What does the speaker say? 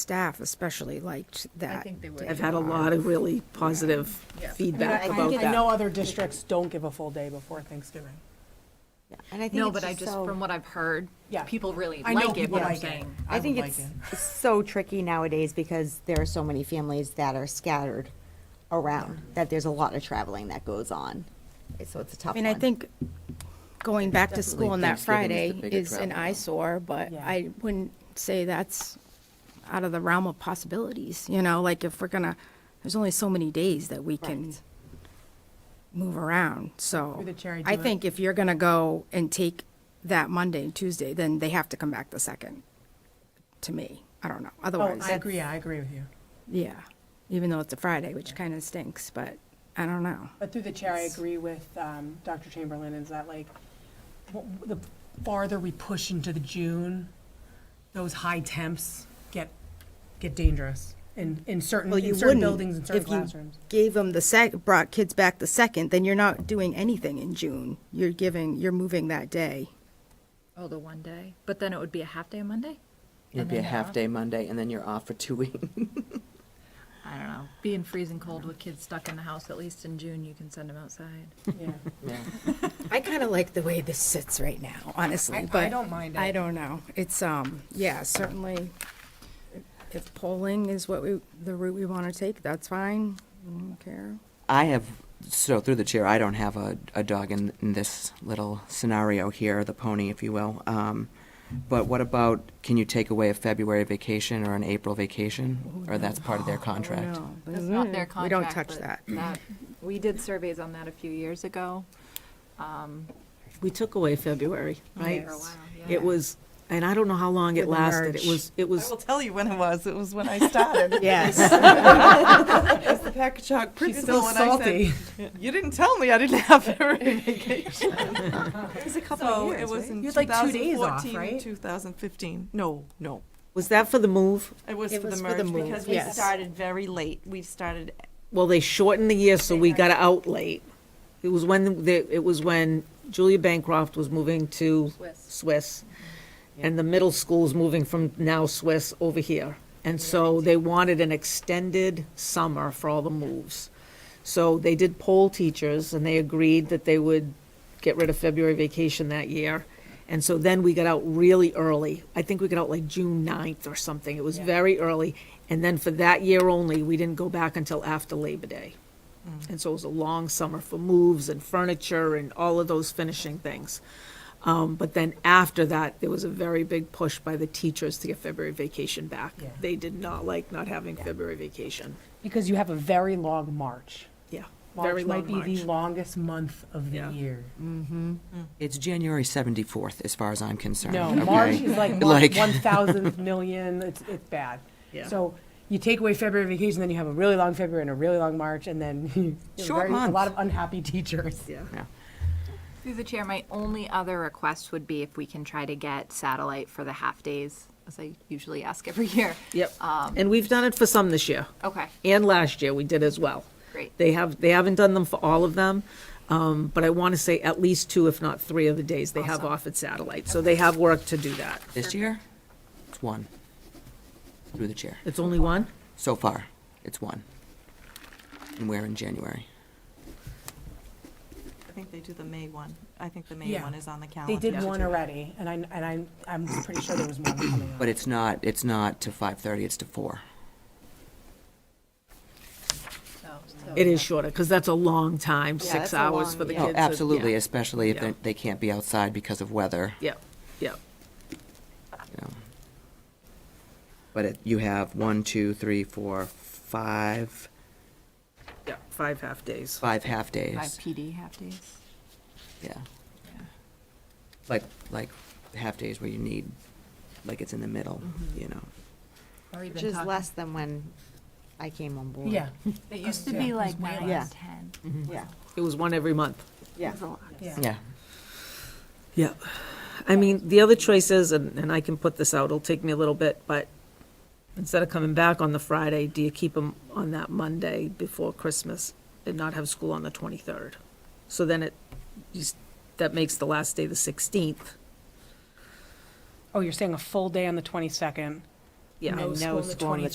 staff especially liked that. think they would. I've had a lot of really positive feedback I- I- about I know that. other districts don't give a full day before Thanksgiving. And I think No, it's but I just, so- from what I've heard, Yeah. people really I know like it, people what I'm like it. saying. I I think would it's like it's so tricky nowadays because there are so many families that are scattered around that there's a lot of traveling that goes on. So it's a tough I mean, I one. think going back to school on that Thanksgiving is Friday the bigger is an travel. eyesore, but Yeah. I wouldn't say that's out of the realm of possibilities, you know, like if we're gonna, there's only so many days that we can move around, so. Through the chair, I I do it. think if you're gonna go and take that Monday and Tuesday, then they have to come back the second, to me. I don't know, Oh, otherwise. I agree, I agree with you. Yeah, even though it's a Friday, which kind of stinks, but I don't know. But through the chair, I agree with um, Dr. Chamberlain, is that like, w- w- the farther we push into the June, those high temps get, get dangerous in, in certain, Well, you in certain wouldn't buildings and certain if you classrooms. gave them the sec, brought kids back the second, then you're not doing anything in June. You're giving, you're moving that day. Oh, the one day, but then it would be a half day on Monday? It'd be a half day Monday, and then you're off for two weeks. I don't know, being freezing cold with kids stuck in the house, at least in June, you can send them outside. Yeah. Yeah. I kind of like the way this sits right now, I- I honestly, but. don't mind I it. don't know. It's, um, yeah, certainly if polling is what we, the route we want to take, that's fine. I don't care. I have, so through the chair, I don't have a, a dog in, in this little scenario here, the pony, if you will. Um, but what about, can you take away a February vacation or an April vacation? Oh, Or that's part of their No. contract? mm, That's not their Mm-hmm. We contract. don't touch but that. We did surveys on that a few years ago. Um, We took away February, right? For a while, yeah. It was, and I don't know how long it With the lasted. merge. It was, it was, I will tell you when it was. It was when I started. Yes. As the Packagug still principal, and I salty. said, "You didn't tell me I didn't have February vacation." It was a couple So of it years, was in You had like two days off, 2014 right? and 2015. No, no, was that for the move? it was It for the was for the merge move, because we yes. started very late. We started Well, they shortened the year, so we got out late. It was when, the- it was when Julia Bancroft was moving to Swiss, and the middle school's moving from now Swiss over here. And so they wanted an extended summer for all the moves. So they did poll teachers, and they agreed that they would get rid of February vacation that year. And so then we got out really early. I think we got out like June 9th or something. It was very early. And then for that year only, we didn't go back until after Labor Day. And so it was a long summer for moves and furniture and all of those finishing things. Um, but then after that, there was a very big push by the teachers to get February vacation back. Yeah. They did not like not having February vacation. Because you have a very long March. Yeah, very March might long be the March. longest month of the Yeah. year. It's January 74th, as far as I'm concerned. No, okay? March is like one Like- one thousandth million, it's, it's bad. Yeah. So you take away February vacation, then you have a really long February and a really long March, and then you have Short very- a month. lot of unhappy teachers. Yeah. Yeah. Through the chair, my only other request would be if we can try to get satellite for the half days, as I usually ask every year. Um, Yep. Um, And we've done it for some this year. Okay, and last year we did as well. Great. They have, they haven't done them for all of them, um, but I want to say at least two, if not three of the days they have off at satellite. So they have work to do that. This year, it's one. Through the chair. It's only one? So far, it's one. And we're in January. I think they do the May one. I think the May Yeah. one is on the calendar. They did one already, and I, and I'm, I'm pretty sure there was one coming up. But it's not, it's not to 5:30, it's to four. so. It is shorter, because that's a long time, Yeah, six that's a hours long- for the yeah. kids. Oh, Oh, and- absolutely, yeah, especially if Yeah. they- they can't be outside because of weather, you Yeah, yeah. know. But it- you have one, two, three, four, five, Yeah, five half-days. five half-days. Five PD half days. Yeah. Like, like half-days where you need, like it's in the middle, Mm-hmm. you know. Or even Which is talking- less than when I came on board. Yeah, It used to be like nine Yeah. and ten. Yeah, It was one every month. yeah. yeah. Yeah. Yeah. I mean, the other choice is, and, and I can put this out, it'll take me a little bit, but instead of coming back on the Friday, do you keep them on that Monday before Christmas and not have school on the 23rd? So then it, you s- that makes the last day the 16th. Oh, you're saying a full day on the 22nd Yeah. And no school on the